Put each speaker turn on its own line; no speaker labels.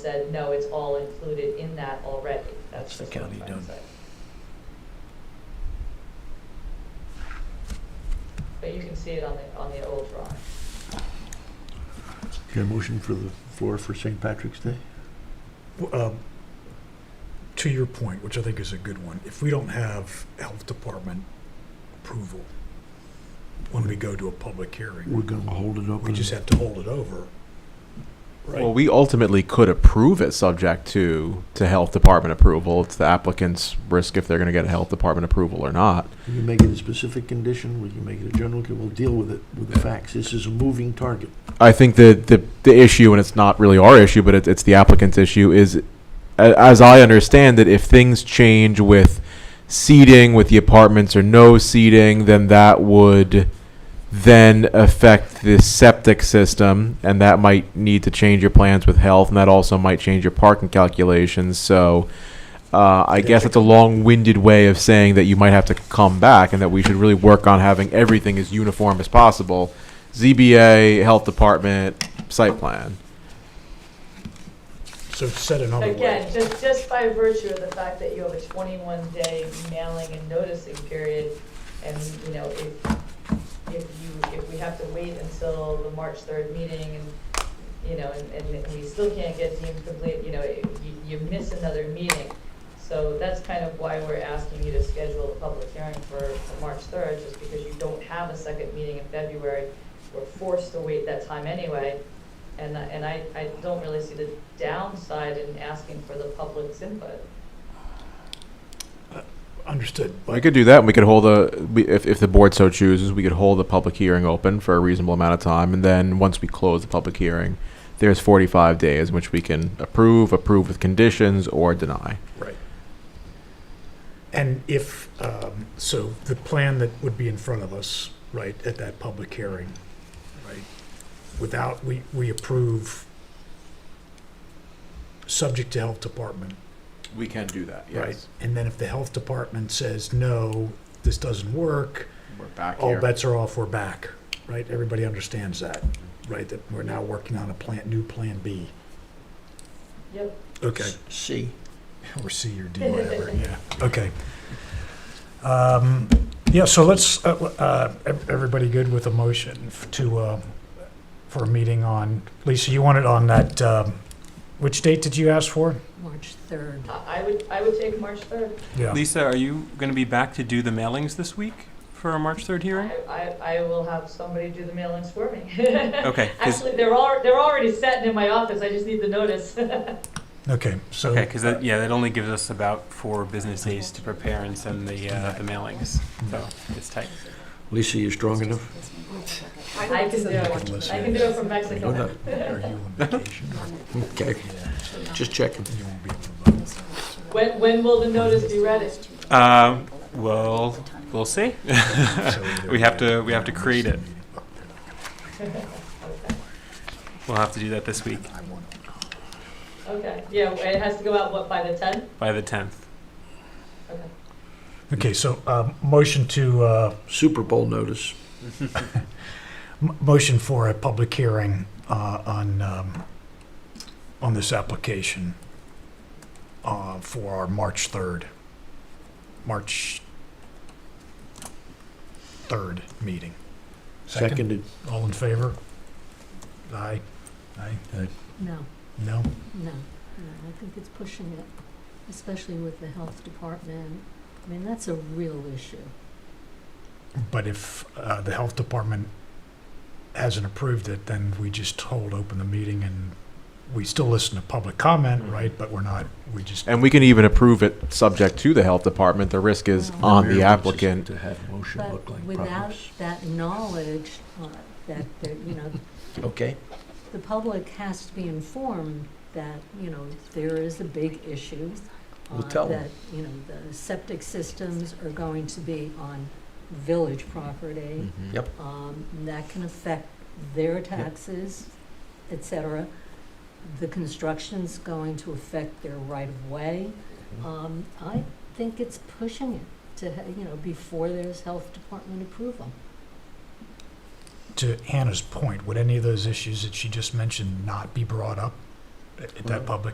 said, no, it's all included in that already.
That's
That's
the
just what I'm
county
trying to
done.
say. But you can see it on the, on the old drawing.
Your motion for the floor for St. Patrick's Day?
W- um, to your point, which I think is a good one, if we don't have health department approval when we go to a public hearing,
We're gonna hold it open.
we just have to hold it over.
Well, we ultimately could approve it subject to, to health department approval. It's the applicant's risk if they're gonna get a health department approval or not.
We can make it a specific condition, we can make it a general, con- we'll deal with it with the facts. This is a moving target.
I think the, the, the issue, and it's not really our issue, but it, it's the applicant's issue, is a- as I understand it, if things change with seating, with the apartments or no seating, then that would then affect the septic system, and that might need to change your plans with health, and that also might change your parking calculations. So uh, I guess it's a long winded way of saying that you might have to come back and that we should really work on having everything as uniform as possible. ZBA, health department, site plan.
So said another way,
Again, just, just by virtue of the fact that you have a twenty-one day mailing and noticing period, and, you know, if, if you, if we have to wait until the March third meeting and, you know, and, and we still can't get deemed complete, you know, you, you miss another meeting. So that's kind of why we're asking you to schedule a public hearing for, for March third, just because you don't have a second meeting in February. We're forced to wait that time anyway. And, I- and I, I don't really see the downside in asking for the public's input.
understood.
We
But
could do that, and we could hold a, we- if, if the board so chooses, we could hold a public hearing open for a reasonable amount of time, and then, once we close the public hearing, there's forty-five days in which we can approve, approve with conditions, or deny.
And if, um, so the plan that would be in front of us, right, at that public hearing, right, without, we, we approve, subject to health department,
We can do that,
right? And then if the health department says, no, this doesn't work,
We're back
all bets are off, we're back, right? Everybody understands that, right? That we're now working on a plan, new Plan B.
Yep.
Okay.
C.
Or C or D, whatever, yeah, okay. Um, Yeah, so let's, uh, uh, ev- everybody good with a motion f- to, uh, for a meeting on, Lisa, you want it on that, um, which date did you ask for?
March 3rd.
I I would, I would take March third.
Yeah.
Lisa, are you going to be back to do the mailings this week for our March 3rd hearing?
I, I, I will have somebody do the mailings for me.
Okay, 'cause-
Actually, they're all, they're already set in my office, I just need the notice.
Okay, so.
Okay, because that, yeah, that only gives us about four business days to prepare and send the, uh, the mailings, so it's tight.
Lisa, you strong enough?
I can do it,
listen.
I can do it from
Go
Mexico.
ahead.
Are you on vacation?
Okay, just checking.
You won't be able to vote.
When, when will the notice be ready?
Um, well, we'll see.
So either
We have
way,
to- we have to
you know,
create
it's a
it.
meeting. Oh, they're not gonna-
We'll have to do that this week
I want it.
Okay, yeah, it has to go out, what, by the tenth?
by the 10th.
Okay.
Okay, so, um, motion to, uh,
Super Bowl notice.
M- Motion for a public hearing uh, on, um, on this application uh, for our March 3rd, March 3rd meeting.
Seconded.
All in favor? Aye. Aye?
No,
No?
no, no, I think it's pushing it, especially with the health department. I mean, that's a real issue.
But if uh, the health department hasn't approved it, then we just hold open the meeting and we still listen to public comment, right? But we're not, we just,
And we can even approve it subject to the health department. The risk is
Oh.
Wow.
on the
Mayor wants us
applicant.
To have motion
But
look like
without
problems.
that knowledge, uh, that, that, you know,
Okay,
the public has to be informed that, you know, there is a big issue.
We'll
uh,
tell 'em.
That, you know, the septic systems are going to be on village property.
yep.
um, that can affect their taxes, et cetera. The construction's going to affect their right of way. Um, I think it's pushing it to, ha- you know, before there's health department approval.
to Hannah's point, would any of those issues that she just mentioned not be brought up at at that
Well-
public